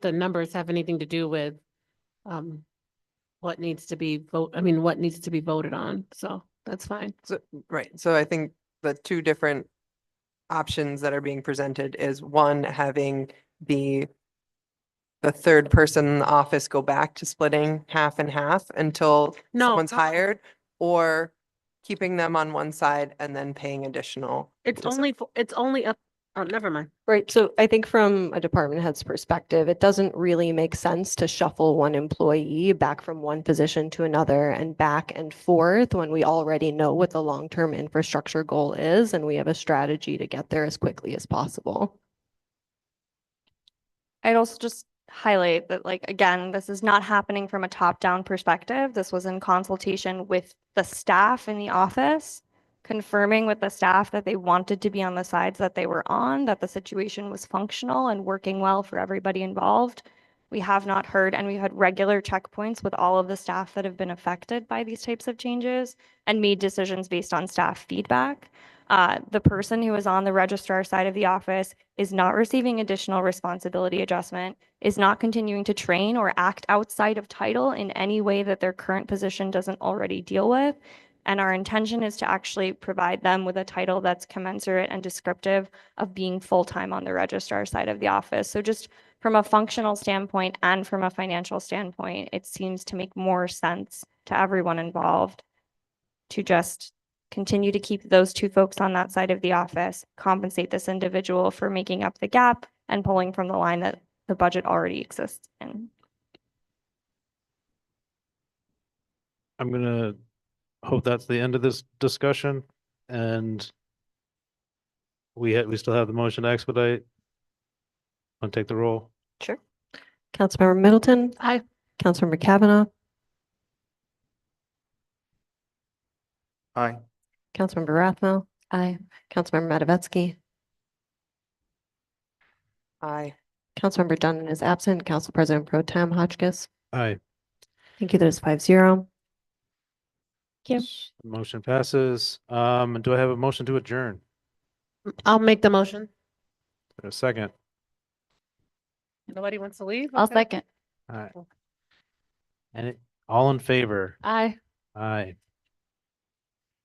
the numbers have anything to do with um what needs to be vote, I mean, what needs to be voted on, so that's fine. Right, so I think the two different options that are being presented is one, having the the third person in the office go back to splitting half and half until No. someone's no, hired, or keeping them on one side and then paying additional. It's Does it- only, for it's only up, oh, never mind. Right, so I think from a department head's perspective, it doesn't really make sense to shuffle one employee back from one position to another and back and forth when we already know what the long-term infrastructure goal is and we have a strategy to get there as quickly as possible. I'd also just highlight that, like, again, this is not happening from a top-down perspective. This was in consultation with the staff in the office, confirming with the staff that they wanted to be on the sides that they were on, that the situation was functional and working well for everybody involved. We have not heard, and we've had regular checkpoints with all of the staff that have been affected by these types of changes and made decisions based on staff feedback. Uh, the person who is on the registrar side of the office is not receiving additional responsibility adjustment, is not continuing to train or act outside of title in any way that their current position doesn't already deal with. And our intention is to actually provide them with a title that's commensurate and descriptive of being full-time on the registrar side of the office. So just from a functional standpoint and from a financial standpoint, it seems to make more sense to everyone involved to just continue to keep those two folks on that side of the office, compensate this individual for making up the gap and pulling from the line that the budget already exists in. I'm gonna hope that's the end of this discussion and we, ha- we still have the motion to expedite. Want to take the roll? Sure. Councilmember Middleton? Aye. Councilmember Kavanaugh? Aye. Councilmember Rathmel? Aye. Councilmember Matavetsky? Aye. Councilmember Dunn is absent. Council President Pro Tem Hotchkiss? Aye. Thank you. That is five zero. Yep. Motion passes. Um, do I have a motion to adjourn? I'll make the motion. A second. Nobody wants to leave? I'll Okay. second. All right. And it, all in favor? Aye. Aye.